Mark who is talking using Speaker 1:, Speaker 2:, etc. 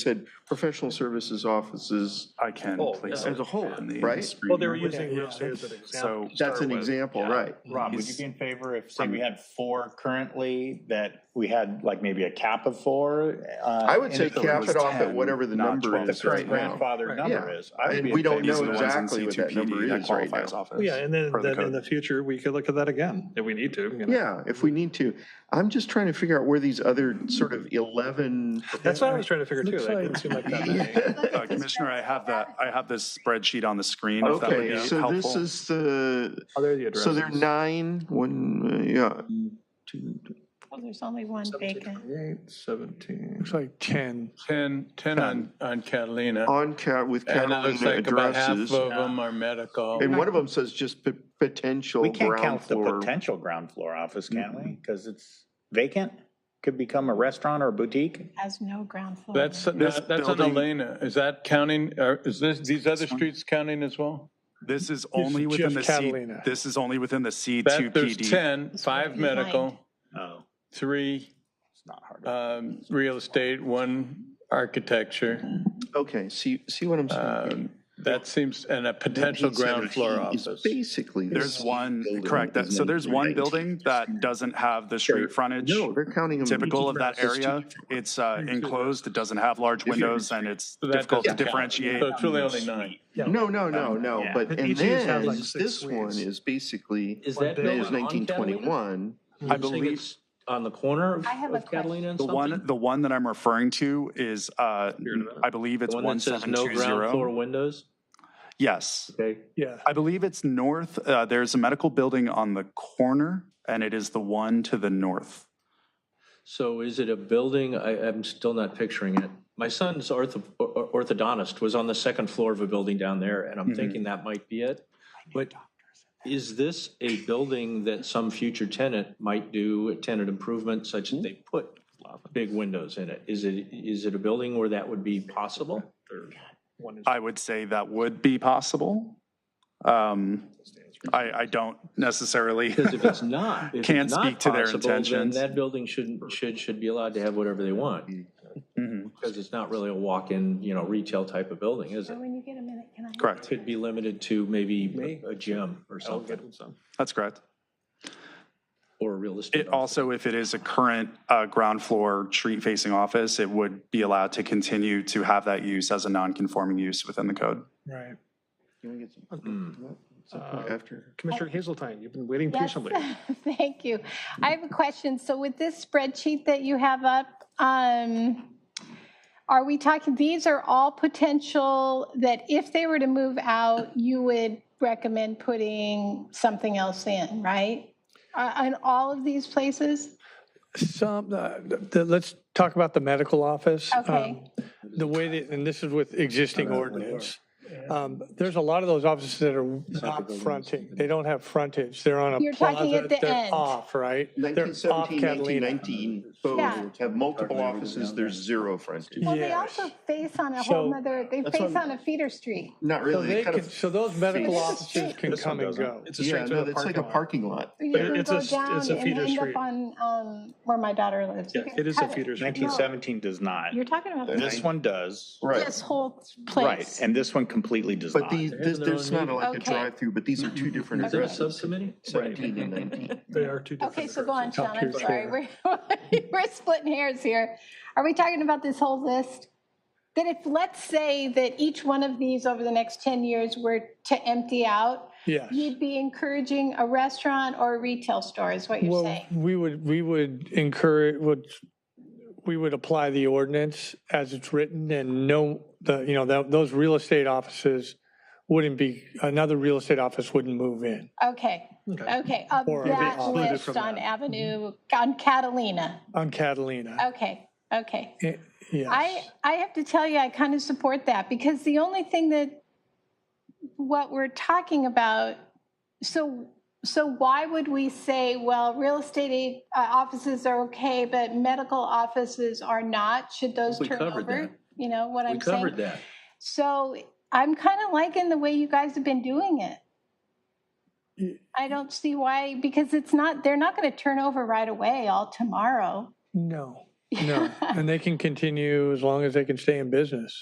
Speaker 1: said professional services offices
Speaker 2: I can
Speaker 3: Oh,
Speaker 2: place
Speaker 3: yeah.
Speaker 2: it
Speaker 1: as a whole,
Speaker 2: in the
Speaker 1: right?
Speaker 2: screen.
Speaker 3: Well, they were using real
Speaker 4: yeah,
Speaker 3: estate as an example.
Speaker 2: So
Speaker 1: That's an
Speaker 3: Start with-
Speaker 1: example,
Speaker 3: yeah.
Speaker 1: right?
Speaker 5: Rob, would you
Speaker 2: He's-
Speaker 5: be in favor if, say, we had four currently, that we had like maybe a cap of four? uh,
Speaker 1: I would say
Speaker 5: and if
Speaker 1: cap it off at
Speaker 2: 10,
Speaker 1: whatever the
Speaker 2: not
Speaker 1: number
Speaker 2: 12.
Speaker 5: The
Speaker 1: is right
Speaker 5: current
Speaker 1: now.
Speaker 5: grandfather
Speaker 3: Right.
Speaker 5: number
Speaker 1: Yeah.
Speaker 5: is. I would
Speaker 1: And
Speaker 5: be
Speaker 1: we
Speaker 5: in
Speaker 1: don't
Speaker 5: favor
Speaker 2: these
Speaker 1: know
Speaker 2: are the
Speaker 5: of
Speaker 2: ones
Speaker 5: that.
Speaker 2: in
Speaker 1: exactly what that
Speaker 2: CTPD
Speaker 1: number
Speaker 2: that
Speaker 1: is right
Speaker 2: qualify
Speaker 1: now.
Speaker 2: as
Speaker 3: Oh,
Speaker 2: office,
Speaker 4: Yeah, and then,
Speaker 2: per the
Speaker 4: then in
Speaker 2: code.
Speaker 4: the future, we could look at that again if we need to. you know.
Speaker 1: Yeah, if we need to. I'm just trying to figure out where these other sort of 11,
Speaker 4: That's what I was trying to figure too.
Speaker 3: Looks
Speaker 4: That
Speaker 3: like-
Speaker 4: didn't seem like that many.
Speaker 1: yeah.
Speaker 2: Uh, Commissioner, I have that, I have this spreadsheet on the screen, if that would be
Speaker 1: Okay, so this
Speaker 2: helpful.
Speaker 1: is the,
Speaker 4: Oh, there are the addresses.
Speaker 1: so there are nine, one, uh, yeah. two,
Speaker 6: Well, there's only one vacant.
Speaker 4: 17, 17.
Speaker 3: Looks like 10.
Speaker 7: 10, 10 on,
Speaker 2: uh,
Speaker 7: on Catalina.
Speaker 1: On cat with
Speaker 7: And it looks
Speaker 1: Catalina
Speaker 7: like about half of
Speaker 1: addresses.
Speaker 7: them are medical.
Speaker 1: And one of them says just p- potential
Speaker 5: We can't
Speaker 1: ground
Speaker 5: count the
Speaker 1: floor.
Speaker 5: potential ground floor office, can we? Because it's vacant, could become a restaurant or a boutique.
Speaker 6: Has no ground floor.
Speaker 7: That's,
Speaker 2: This
Speaker 7: that's on
Speaker 2: building-
Speaker 7: Elena. Is that counting, or is this, these other
Speaker 2: This one?
Speaker 7: streets counting as well?
Speaker 2: This is only within the
Speaker 3: just
Speaker 2: C,
Speaker 3: Catalina.
Speaker 2: this is only within the C two
Speaker 7: That, there's
Speaker 2: PD.
Speaker 7: 10,
Speaker 6: That's
Speaker 7: five
Speaker 6: right behind.
Speaker 7: medical,
Speaker 5: Oh,
Speaker 7: three
Speaker 5: it's not hard.
Speaker 7: um, real estate, one architecture.
Speaker 1: Okay, see, see what I'm saying?
Speaker 7: Um, That seems, and a potential ground floor
Speaker 1: 1917 is
Speaker 7: office.
Speaker 1: Basically. the
Speaker 2: There's
Speaker 1: same
Speaker 2: one,
Speaker 1: building
Speaker 2: correct, that-
Speaker 1: as
Speaker 2: so there's one
Speaker 1: 1919.
Speaker 2: building that doesn't have the street frontage.
Speaker 1: No, they're counting them.
Speaker 2: Typical of that
Speaker 1: It's two
Speaker 2: area,
Speaker 1: different ones.
Speaker 2: it's uh, enclosed, it doesn't have large
Speaker 1: you're-
Speaker 2: windows, and it's
Speaker 7: So that
Speaker 2: difficult to
Speaker 7: doesn't count.
Speaker 2: differentiate.
Speaker 7: So it's really only nine.
Speaker 1: No, no, no, no,
Speaker 5: yeah.
Speaker 1: but,
Speaker 4: But
Speaker 1: and
Speaker 4: each of these has
Speaker 1: then
Speaker 4: like
Speaker 1: is
Speaker 4: six
Speaker 1: this one
Speaker 4: suites.
Speaker 1: is basically,
Speaker 8: Is
Speaker 4: What
Speaker 8: that
Speaker 4: day
Speaker 1: that
Speaker 4: is
Speaker 1: is
Speaker 8: building on
Speaker 1: nineteen
Speaker 8: Catalina?
Speaker 1: twenty-one.
Speaker 2: I
Speaker 8: You're saying
Speaker 2: believe-
Speaker 8: it's On the corner of
Speaker 6: I have a
Speaker 8: of Catalina and
Speaker 2: The one,
Speaker 8: something?
Speaker 2: the one that I'm referring to is, uh, I believe it's
Speaker 8: The one that says no ground
Speaker 2: 1720.
Speaker 8: floor windows?
Speaker 2: Yes.
Speaker 8: Okay.
Speaker 3: Yeah,
Speaker 2: I believe it's north. Uh, there's a medical building on the corner, and it is the one to the north.
Speaker 8: So is it a building? I, I'm still not picturing it. My son's ortho, or- or- orthodontist was on the second floor of a building down there, and I'm
Speaker 2: Mhm.
Speaker 8: thinking that might be it. But is this a building that some future tenant might do a tenant improvement such
Speaker 2: Mm-hmm.
Speaker 8: that they put big windows in it? Is it, is it a building where that would be possible?
Speaker 4: One is-
Speaker 2: I would say that would be possible. Um, I, I don't necessarily.
Speaker 8: Because if it's not, if
Speaker 2: Can't
Speaker 8: it's not
Speaker 2: speak to their
Speaker 8: possible, then
Speaker 2: intentions.
Speaker 8: That building shouldn't, should, should be allowed to have whatever they want,
Speaker 2: Mhm,
Speaker 8: because it's not really a walk-in, you know, retail type of building, is
Speaker 6: So
Speaker 8: it?
Speaker 6: when you get a minute, can I?
Speaker 2: Correct.
Speaker 8: Could be limited to maybe a gym or
Speaker 4: I'll get
Speaker 8: something,
Speaker 4: him some.
Speaker 2: That's correct.
Speaker 8: or a real estate.
Speaker 2: It also, if it is a current uh, ground floor street facing office, it would be allowed to continue to have that use as a non conforming use within the code.
Speaker 3: right.
Speaker 1: You wanna get some-
Speaker 8: Hmm.
Speaker 1: some point After.
Speaker 4: Commissioner Hazeltine, you've been waiting
Speaker 6: Oh. Yes,
Speaker 4: patiently.
Speaker 6: Thank you. I have a question. So with this spreadsheet that you have up, um, are we talking, these are all potential that if they were to move out, you would recommend putting something else in, right? Uh, In all of these places?
Speaker 3: Some, uh, the- let's talk about the medical office.
Speaker 6: Okay.
Speaker 3: Um, The way that, and this is with existing ordinance. Um, There's a lot of those offices that are not fronting. They don't have frontage. They're on a plaza.
Speaker 6: You're talking at the
Speaker 3: They're
Speaker 6: end.
Speaker 3: Off, right? They're off
Speaker 1: 1917,
Speaker 3: Catalina.
Speaker 1: 1919, both
Speaker 6: Yeah.
Speaker 1: have multiple offices, there's zero frontage.
Speaker 6: Well, they
Speaker 3: Yes.
Speaker 6: also face on a whole
Speaker 3: So-
Speaker 6: nother, they face on a feeder street.
Speaker 1: Not
Speaker 3: So
Speaker 1: really, they
Speaker 3: they
Speaker 1: kind
Speaker 3: can,
Speaker 1: of,
Speaker 3: so those medical
Speaker 6: This is
Speaker 3: offices
Speaker 6: street.
Speaker 3: can
Speaker 4: This one
Speaker 3: come and
Speaker 4: doesn't.
Speaker 3: go.
Speaker 4: It's a
Speaker 1: yeah,
Speaker 4: straight
Speaker 1: no,
Speaker 3: through the
Speaker 1: it's like a
Speaker 3: parking
Speaker 1: parking
Speaker 3: lot.
Speaker 1: lot.
Speaker 6: You
Speaker 3: But
Speaker 6: can
Speaker 3: it's
Speaker 6: go
Speaker 3: a- it's
Speaker 6: down
Speaker 3: a
Speaker 6: and
Speaker 3: feeder
Speaker 6: end up
Speaker 3: street.
Speaker 6: on, um, where my daughter lives. You
Speaker 4: Yeah,
Speaker 6: can
Speaker 4: It is a
Speaker 6: cut
Speaker 4: feeder street.
Speaker 5: Nineteen seventeen does not.
Speaker 6: You're talking about
Speaker 5: This one does.
Speaker 1: Right,
Speaker 6: this whole
Speaker 5: Right,
Speaker 6: place.
Speaker 5: and this one completely does
Speaker 1: but
Speaker 5: not.
Speaker 1: these,
Speaker 8: They have
Speaker 1: this,
Speaker 8: their own
Speaker 1: there's not like a
Speaker 6: Okay.
Speaker 1: drive-through, but these are two different
Speaker 8: Is there a
Speaker 1: addresses,
Speaker 8: subcommittee?
Speaker 1: 17 and 19.
Speaker 3: They are two different.
Speaker 6: Okay, so go on,
Speaker 3: addresses.
Speaker 6: Sean, I'm
Speaker 3: Top tier
Speaker 6: sorry,
Speaker 3: trailer.
Speaker 6: we're, we're splitting hairs here. Are we talking about this whole list? That if, let's say that each one of these over the next 10 years were to empty out,
Speaker 3: Yes.
Speaker 6: you'd be encouraging a restaurant or a retail store, is what you're
Speaker 3: Well,
Speaker 6: saying?
Speaker 3: we would, we would encourage, would, we would apply the ordinance as it's written and no, the, you know, tho- those real estate offices wouldn't be, another real estate office wouldn't move in.
Speaker 6: Okay, okay, of
Speaker 3: Or are they
Speaker 6: that
Speaker 3: excluded
Speaker 6: list
Speaker 3: from
Speaker 6: on
Speaker 3: that? Mm-hmm.
Speaker 6: Avenue, on Catalina.
Speaker 3: On Catalina.
Speaker 6: Okay, okay.
Speaker 3: Eh, Yes.
Speaker 6: Oh, I, I have to tell you, I kind of support that because the only thing that, what we're talking about, so, so why would we say, well, real estate uh, offices are okay, but medical offices are not? Should those
Speaker 8: We
Speaker 6: turn
Speaker 8: covered
Speaker 6: over?
Speaker 8: that.
Speaker 6: You know what
Speaker 8: We
Speaker 6: I'm
Speaker 8: covered
Speaker 6: saying?
Speaker 8: that.
Speaker 6: So I'm kind of liking the way you guys have been doing it.
Speaker 3: Y-
Speaker 6: I don't see why, because it's not, they're not going to turn over right away all tomorrow.
Speaker 3: No. No, and they can continue as long as they can stay in business.